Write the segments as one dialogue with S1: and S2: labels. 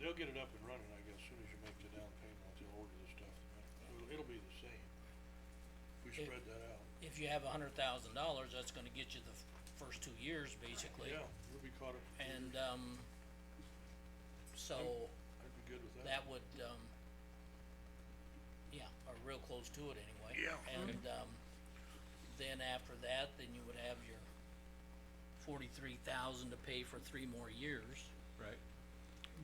S1: They'll get it up and running, I guess, soon as you make the down payment, once they'll order the stuff. It'll, it'll be the same. We
S2: It-
S1: spread that out.
S2: If you have a hundred thousand dollars, that's gonna get you the f- first two years, basically.
S1: Yeah, you'll be caught up.
S2: And, um, so
S1: I'd be good with that.
S2: that would, um, yeah, or real close to it anyway.
S1: Yeah.
S2: And, um, then after that, then you would have your forty-three thousand to pay for three more years.
S3: Right.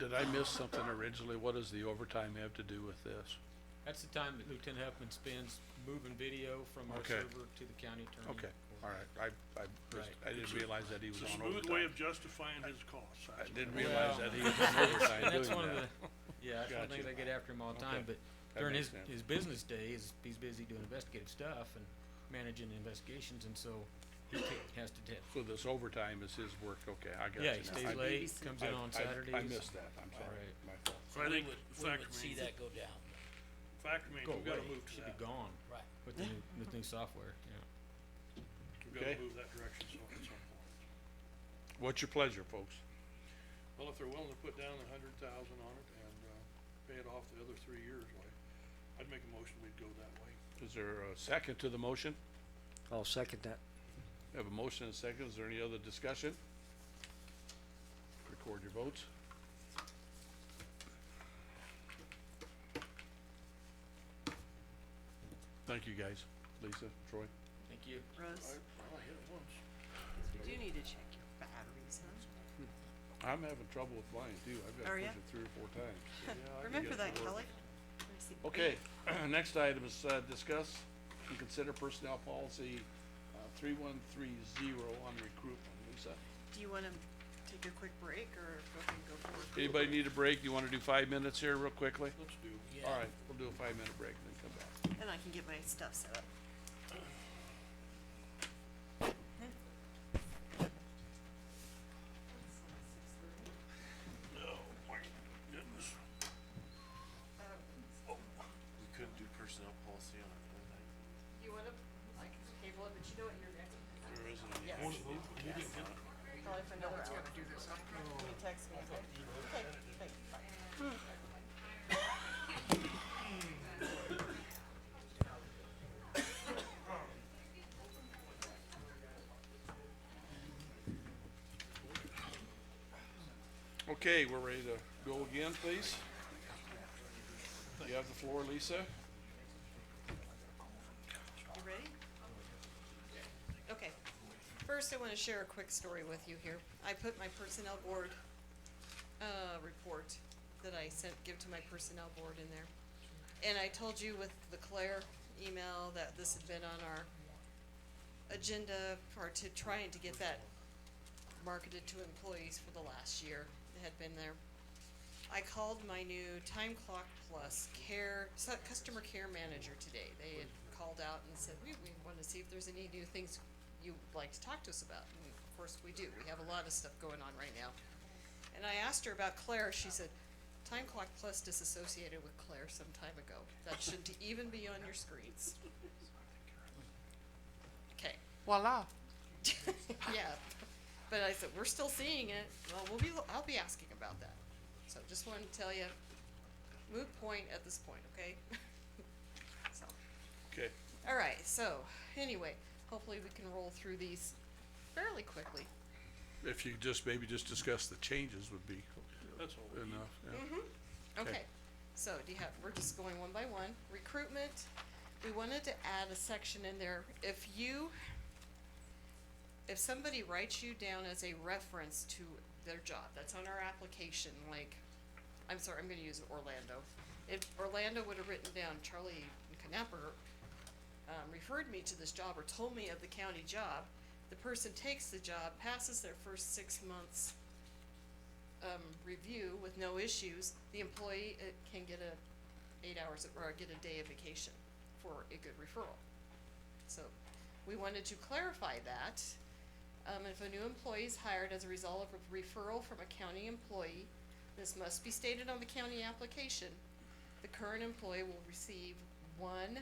S4: Did I miss something originally? What does the overtime have to do with this?
S3: That's the time that Lieutenant Huffman spends moving video from our
S4: Okay.
S3: server to the county attorney.
S4: Okay, all right, I, I, just-
S3: Right.
S4: I didn't realize that he was
S1: It's a
S4: on
S1: smooth way
S4: overtime.
S1: of justifying his costs.
S4: I didn't
S3: Well-
S4: realize that he was on overtime
S3: And
S4: doing
S3: that's one of
S4: that.
S3: the, yeah, that's one thing they
S4: Gotcha.
S3: get after him all the time,
S4: Okay.
S3: but
S4: That
S3: during
S4: makes
S3: his,
S4: sense.
S3: his business days, he's busy doing investigative stuff and managing investigations, and so he ta- has to tip.
S4: So this overtime is his work, okay, I got you
S3: Yeah,
S4: now.
S3: he stays
S4: I-
S3: late, comes in
S4: I-
S3: on
S4: I-
S3: Saturdays.
S4: I missed that, I'm sorry,
S3: Right.
S4: my fault.
S1: So I
S2: We
S1: think
S2: would-
S1: the fact
S2: We would see
S1: remains,
S2: that go down,
S1: fact remains,
S3: Go
S1: we've gotta
S3: away.
S1: move to
S3: Should
S1: that.
S3: be gone
S2: right.
S3: with the new, with new software, yeah.
S1: We've gotta
S4: Okay.
S1: move that direction so at some point.
S4: What's your pleasure, folks?
S1: Well, if they're willing to put down a hundred thousand on it and, uh, pay it off the other three years, like, I'd make a motion, we'd go that way.
S4: Is there a second to the motion?
S5: I'll second that.
S4: We Have a motion and a second, is there any other discussion? Record your votes. Thank you, guys, Lisa, Troy.
S3: Thank you.
S1: I,
S6: Russ,
S1: I hit it once.
S6: you do need to check your batteries, huh?
S4: I'm having trouble with mine too, I've got
S6: Are
S4: to
S6: ya?
S4: push it three or four times. so yeah, I
S6: Remember
S4: guess
S6: that,
S4: it'll
S6: Kelly?
S4: work.
S6: I see
S4: Okay, next item is, uh, discuss and consider personnel policy, uh, three one three zero on recruitment, Lisa.
S6: Do you wanna take a quick break or go ahead and go forward?
S4: Anybody need a break, you wanna do five minutes here real quickly?
S1: Let's do.
S2: Yeah.
S4: All right, we'll do a five-minute break and then come back.
S6: And I can get my stuff set up.
S1: No, my goodness.
S6: Um,
S7: Oh, We couldn't do personnel policy on another night.
S6: You wanna, I can table it, but you know what, you're next,
S7: There isn't any
S6: Yes.
S7: action.
S6: probably for another hour. No one's gonna do this, huh? Can you text me? okay? Okay, thanks, bye.
S4: Okay, we're ready to go again, please. You have the floor, Lisa.
S6: You ready? Okay. First, I wanna share a quick story with you here. I put my personnel board, uh, report that I sent, give to my personnel board in there. And I told you with the Claire email that this had been on our agenda for to trying to get that marketed to employees for the last year. It had been there. I called my new Time Clock Plus care, su- customer care manager today. They had called out and said, we, we wanna see if there's any new things you'd like to talk to us about. And of course, we do. We have a lot of stuff going on right now. And I asked her about Claire. She said, Time Clock Plus disassociated with Claire some time ago. That shouldn't even be on your screens. Okay.
S5: Voila.
S6: yeah, but I said, we're still seeing it, well, we'll be, I'll be asking about that. So just wanted to tell you, moot point at this point, okay? So,
S4: Okay.
S6: alright, so, anyway, hopefully we can roll through these fairly quickly.
S4: If you just, maybe just discuss the changes would be
S1: That's all. we need.
S4: enough, yeah. Okay.
S6: Okay, so do you have, we're just going one by one. Recruitment, we wanted to add a section in there. If you, if somebody writes you down as a reference to their job, that's on our application, like, I'm sorry, I'm gonna use Orlando. If Orlando would have written down Charlie Knapper, um, referred me to this job or told me of the county job, the person takes the job, passes their first six months um, review with no issues, the employee uh, can get a eight hours of- or get a day of vacation for a good referral. So, we wanted to clarify that. Um, if a new employee is hired as a result of a referral from a county employee, this must be stated on the county application. The current employee will receive one